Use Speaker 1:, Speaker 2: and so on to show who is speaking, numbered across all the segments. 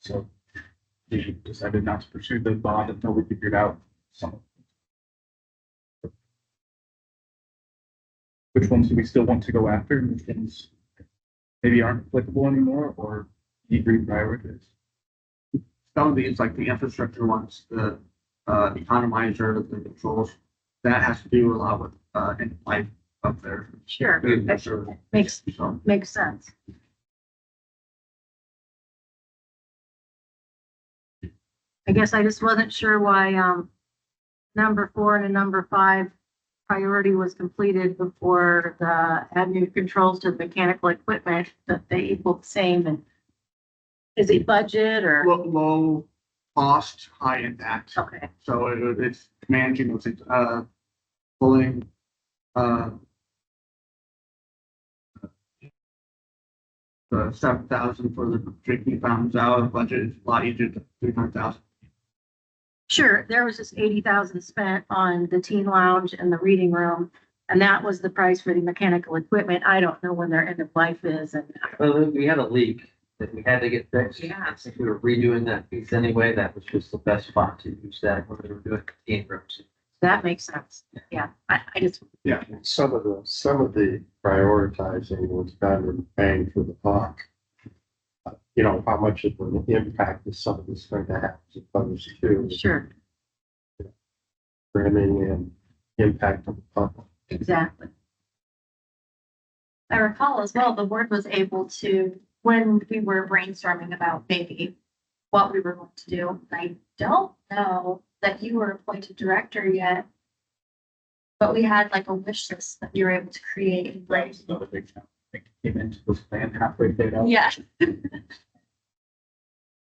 Speaker 1: So we decided not to pursue the bond until we figured out some. Which ones do we still want to go after and which ones maybe aren't applicable anymore or need reprioritize?
Speaker 2: some of these, like the infrastructure ones, the uh, economizer, the controls, that has to do a lot with uh, in life up there.
Speaker 3: Sure, that
Speaker 2: So,
Speaker 3: makes, makes sense. I guess I just wasn't sure why, um, number four and a number five priority was completed before the add new controls to the mechanical equipment, that they equal the same and is it budget or?
Speaker 2: low, low cost, high impact.
Speaker 3: Okay,
Speaker 2: So it- it's managing those, things, uh, pulling, uh, the seven thousand for the drinking fountains out of budget is a lot easier than three hundred thousand.
Speaker 3: sure, there was just eighty thousand spent on the teen lounge and the reading room. And that was the price for the mechanical equipment. I don't know when their end of life is and
Speaker 4: Well, we had a leak that we had to get fixed.
Speaker 3: Yeah.
Speaker 4: Since we were redoing that piece anyway, that was just the best spot to use that when we were doing contained rooms.
Speaker 3: That makes sense. Yeah, I, I just,
Speaker 5: Some of the, some of the prioritizing was done in bang for the buck. Uh, You know, how much of an impact is some of this going to have as opposed to
Speaker 3: sure,
Speaker 5: trimming and impact on the public?
Speaker 3: exactly. I recall as well, the board was able to, when we were brainstorming about maybe what we were going to do, I don't know that you were appointed director yet. But we had like a wish list that you were able to create, like,
Speaker 1: That's another big challenge. I think it Came into this plan halfway there.
Speaker 3: yeah.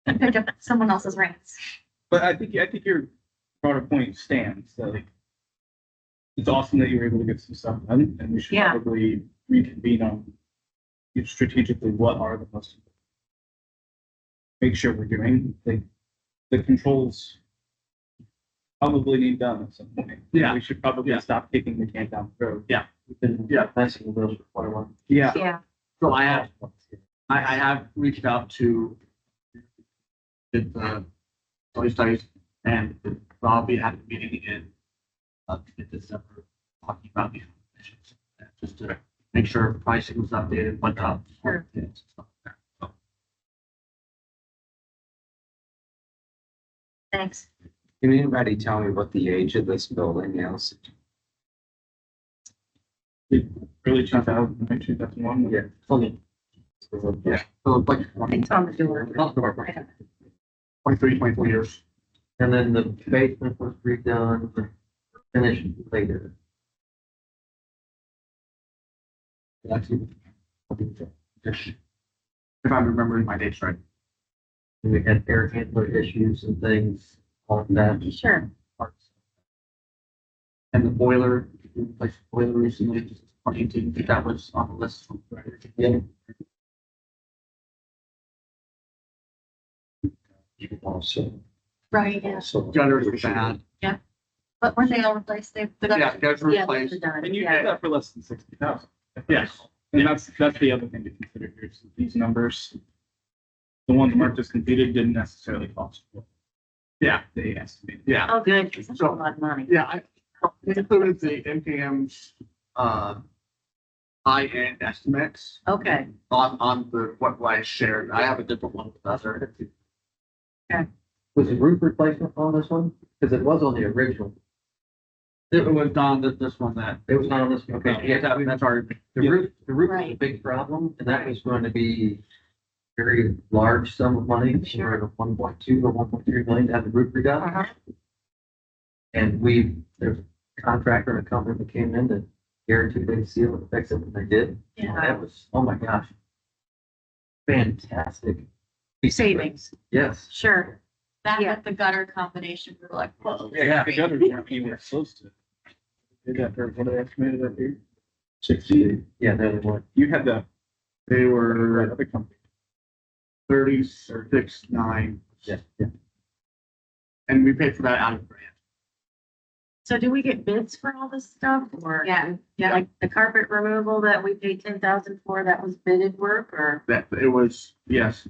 Speaker 3: And picked up someone else's reins.
Speaker 1: But I think, I think your broader point stands, so like, it's awesome that you were able to get some stuff done, and we should
Speaker 3: Yeah.
Speaker 1: probably reconvene on you know, strategically, what are the most important. Make sure we're doing, like, the controls probably need done at some point.
Speaker 2: Yeah.
Speaker 1: We should probably
Speaker 2: Yeah.
Speaker 1: stop kicking the can down the road.
Speaker 2: Yeah.
Speaker 4: Yeah. Messing with those before one.
Speaker 1: Yeah.
Speaker 3: Yeah,
Speaker 2: So I have I, I have reached out to did the soil studies and Rob, we had a meeting in uh, in December talking about these issues, just to make sure pricing was updated, what not.
Speaker 3: Sure. thanks.
Speaker 6: Can anybody tell me what the age of this building is?
Speaker 1: Early two thousand, maybe two thousand one.
Speaker 6: Yeah.
Speaker 2: Fully,
Speaker 6: Yeah.
Speaker 2: so it's like twenty,
Speaker 3: It's on the door.
Speaker 2: twenty-three, twenty-four years.
Speaker 4: And then the basement was redone, finished later.
Speaker 2: Actually, If I'm remembering my dates right.
Speaker 4: And we had air handler issues and things on that
Speaker 3: Sure,
Speaker 4: part.
Speaker 2: And the boiler, we replaced the boiler recently, just twenty eighteen, that was on the list. from-
Speaker 4: Yeah.
Speaker 5: Also,
Speaker 3: right, yeah.
Speaker 5: also.
Speaker 2: Gutters are bad.
Speaker 3: But when they all replaced, they.
Speaker 2: Yeah, gutters
Speaker 3: Yeah, they're
Speaker 2: replaced.
Speaker 3: done,
Speaker 1: And you
Speaker 3: yeah.
Speaker 1: did that for less than sixty thousand.
Speaker 2: Yes.
Speaker 1: And that's, that's the other thing to consider here, is that these numbers. The ones marked as completed didn't necessarily cost. what
Speaker 2: Yeah.
Speaker 1: They estimated.
Speaker 2: Yeah,
Speaker 3: Oh, good, 'cause that's a lot of money.
Speaker 2: Yeah, I it included the NPM's uh high-end estimates
Speaker 3: Okay,
Speaker 2: on on the what I shared. I have a different one with us. or-
Speaker 4: Was the roof replacement on this one? Because it was on the original.
Speaker 2: It was on this this one that.
Speaker 4: It was not on this one.
Speaker 2: Okay, yeah, that, that's our,
Speaker 4: The roof, the roof was a
Speaker 3: Right.
Speaker 4: big problem, and that was going to be very large sum of money,
Speaker 3: Sure.
Speaker 4: we're at one point two or one point three million to have the roof redone.
Speaker 3: uh-huh,
Speaker 4: And we, there's a contractor and a company that came in that guaranteed they'd seal it, fix it, and they did. And
Speaker 3: yeah,
Speaker 4: That was, oh my gosh. Fantastic.
Speaker 3: savings,
Speaker 4: Yes.
Speaker 3: sure.
Speaker 7: That
Speaker 3: Yeah.
Speaker 7: with the gutter combination, we were like, whoa.
Speaker 4: Yeah.
Speaker 1: The gutters weren't anywhere close to. Did that for what I estimated that here?
Speaker 5: Sixty,
Speaker 4: Yeah, no, they weren't.
Speaker 1: You had the,
Speaker 2: they
Speaker 1: the
Speaker 2: were
Speaker 1: other company.
Speaker 2: thirty-six, nine,
Speaker 4: Yeah.
Speaker 2: and we paid for that out of grant.
Speaker 3: So do we get bids for all this stuff or?
Speaker 7: Yeah, yeah.
Speaker 3: Like the carpet removal that we paid ten thousand for, that was bidded work or?
Speaker 2: That, it was, yes,